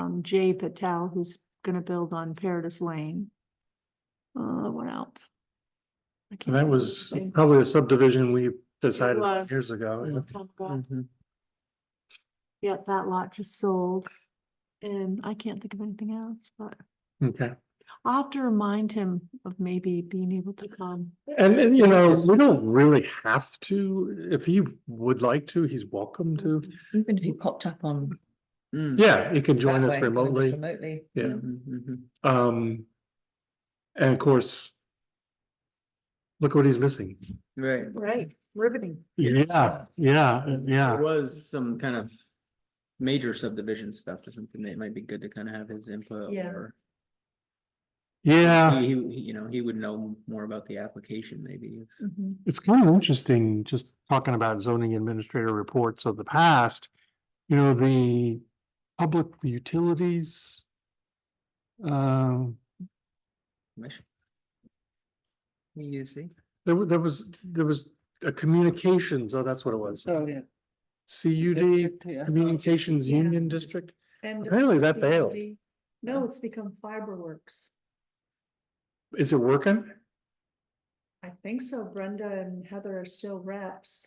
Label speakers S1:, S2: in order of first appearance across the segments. S1: um, Jay Patel, who's gonna build on Paradise Lane. Uh, what else? I
S2: And
S1: can't
S2: That was
S1: Okay.
S2: probably a subdivision we decided
S1: was.
S2: years ago.
S1: remember. Oh, God.
S3: Mm-hmm.
S2: Mhm.
S1: Yeah, that lot just sold. And I can't think of anything else, but
S2: Okay,
S1: I'll have to remind him of maybe being able to come.
S2: and, and you know, we don't really have to, if he would like to, he's welcome to.
S4: Even if you popped up on. Mm,
S2: Yeah, he can
S4: that
S2: join
S4: way,
S2: us
S4: join
S2: remotely.
S4: Remotely.
S2: Yeah.
S4: Mhm,
S3: Mm-hmm,
S4: mhm.
S2: Um, and of course, look what he's missing.
S4: Right.
S1: Right, riveting.
S2: Yeah, yeah,
S3: There
S2: yeah.
S3: was some kind of major subdivision stuff or something that might be good to kind of have his input
S1: Yeah.
S3: or.
S2: Yeah,
S3: He, he- you know, he would know more about the application maybe.
S4: Mm-hmm.
S2: it's kind of interesting, just talking about zoning administrator reports of the past. You know, the public utilities. Um,
S3: You see?
S2: There was, there was, there was a communications, oh, that's what it was.
S4: So, yeah.
S2: CUD, Communications
S1: Yeah.
S2: Union District.
S1: And.
S2: Apparently that failed.
S1: No, it's become Fiberworks.
S2: Is it working?
S1: I think so. Brenda and Heather are still reps.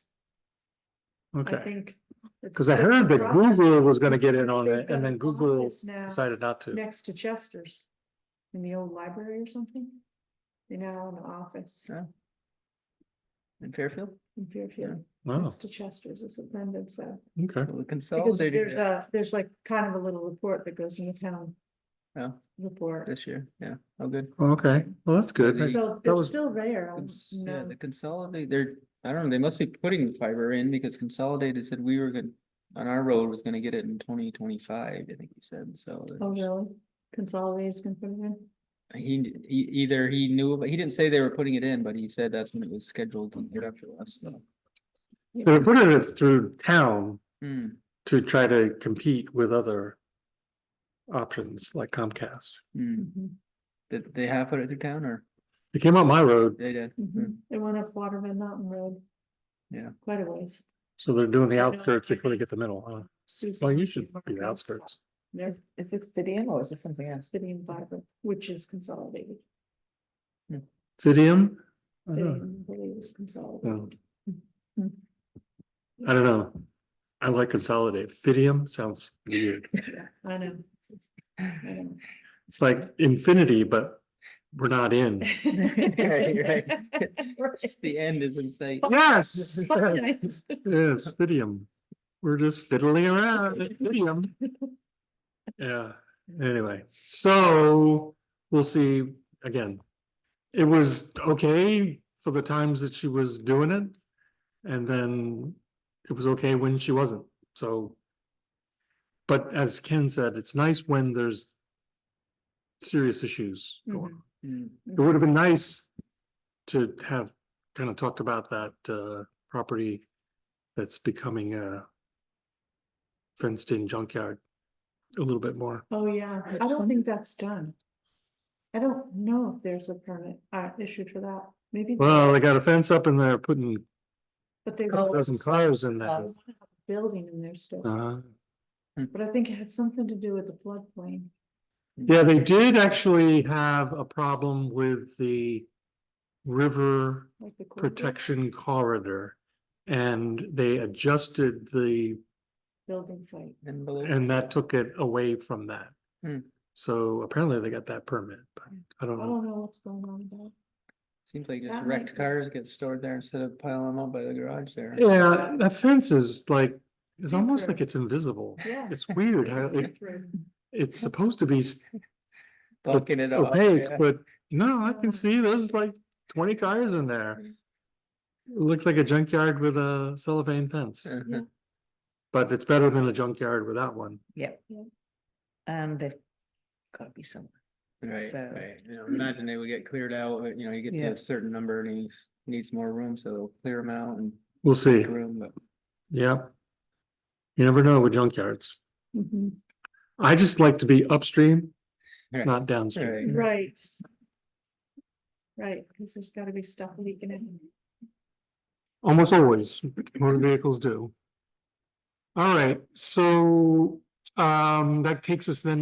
S1: I
S2: Okay,
S1: think. it's
S2: because I
S1: still in
S2: heard that
S1: progress.
S2: Google was gonna get in
S1: They've
S2: on it
S1: got
S2: and then
S1: an
S2: Google
S1: office now
S2: decided not to.
S1: Next to Chester's, in the old library or something. They now in the office
S3: In Fairfield?
S1: in Fairfield,
S2: Wow,
S1: next to Chester's is what Brenda said.
S2: okay.
S3: Well,
S1: Because there's
S3: Consolidated
S4: uh,
S3: it
S1: a, there's like kind of a little report that goes in the town
S3: Oh.
S1: report.
S3: this year, yeah, oh, good.
S2: Okay, well, that's good.
S3: Maybe-
S1: So
S2: that
S1: it's
S2: was-
S1: still there. I'm-
S3: Cons- Yeah,
S1: Um, no.
S3: the consolidate, they're, I don't know, they must be putting the fiber in because Consolidated said we were gonna, on our road was gonna get it in twenty twenty-five, I think he said,
S1: Oh,
S3: so. there's-
S1: really? Consolidated's gonna put it in?
S3: He, he, either he knew, but he didn't say they were putting it in, but he said that's when it was scheduled to get up to us, so.
S2: They were putting it through town
S3: Hmm,
S2: to try to compete with other options like Comcast.
S3: hmm,
S1: Mhm,
S3: did they have put it through town or
S2: It came up my road,
S3: they did?
S1: mhm. It went up Waterman Mountain Road.
S3: mm-hmm. Yeah.
S1: Quite a ways.
S2: so they're doing the outskirts before they get the middle, huh? Well, you
S1: Susan's
S2: should be the
S1: Market's
S2: outskirts.
S1: There,
S4: Is this Vivian or is this something else?
S1: City and Fiber, which is consolidated.
S2: Fidium? I don't know.
S1: Fidium, I believe, is
S2: No.
S1: consolidated.
S2: I don't know. I like consolidate. Fidium sounds weird.
S1: Yeah, I know. I know.
S2: It's like infinity, but we're not in.
S3: Right,
S1: Right.
S3: The end is in sight.
S2: Yes. Yes,
S1: Finite.
S2: Fidium. We're just fiddling around at Fidium. Yeah, anyway, so we'll see again. It was okay for the times that she was doing it. And then it was okay when she wasn't, so. But as Ken said, it's nice when there's. Serious issues going on.
S3: Hmm,
S2: It would have been nice to have kind of talked about that uh property that's becoming a fenced in junkyard a little bit more.
S1: Oh, yeah, I
S4: That's
S1: don't
S4: one.
S1: think that's done. I don't know if there's a permit, uh, issued for that, maybe. there
S2: Well,
S1: is,
S2: they got a fence up in there putting
S1: But they.
S4: Oh,
S2: a dozen
S4: it's-
S2: cars in there.
S4: Cars.
S1: Building in there still,
S2: Uh,
S1: but I think it had something to do with the floodplain.
S3: hmm.
S2: yeah, they did actually have a problem with the river
S1: like the corridor
S2: protection corridor. And they adjusted the
S1: Building site.
S3: And below.
S2: And that took it away from that.
S3: Hmm. Oh.
S2: So apparently they got that permit, but I
S1: I
S2: don't know.
S1: don't know what's going on about.
S3: Seems like
S1: That
S3: just
S1: might
S3: wrecked
S1: be-
S3: cars get stored there instead of piling them up by the garage there.
S2: Yeah, that fence is like, it's
S1: See
S2: almost
S1: through.
S2: like it's invisible.
S1: Yeah.
S2: It's weird how it, it's supposed to be s-
S3: Bucking it up.
S2: opaque,
S3: yeah.
S2: but no, I can
S1: So-
S2: see there's like twenty cars in there.
S3: Hmm.
S2: It Looks like a junkyard with a cellophane fence,
S3: Uh-huh.
S2: but it's better than a junkyard without one.
S4: Yep.
S1: Yeah.
S4: And they've got to be somewhere.
S3: Right,
S4: So-
S3: right. You know, imagine they would get cleared out, but, you know, you get
S4: Yeah.
S3: to a certain number and he needs more room, so they'll clear them out and
S2: We'll see.
S3: make room, but.
S2: Yep. You never know with junkyards.
S1: Mhm.
S2: I just like to be upstream,
S3: Right.
S2: not downstream.
S3: Right.
S1: Right. Right, because there's gotta be stuff leaking in.
S2: Almost always, motor vehicles do. All right, so um that takes us then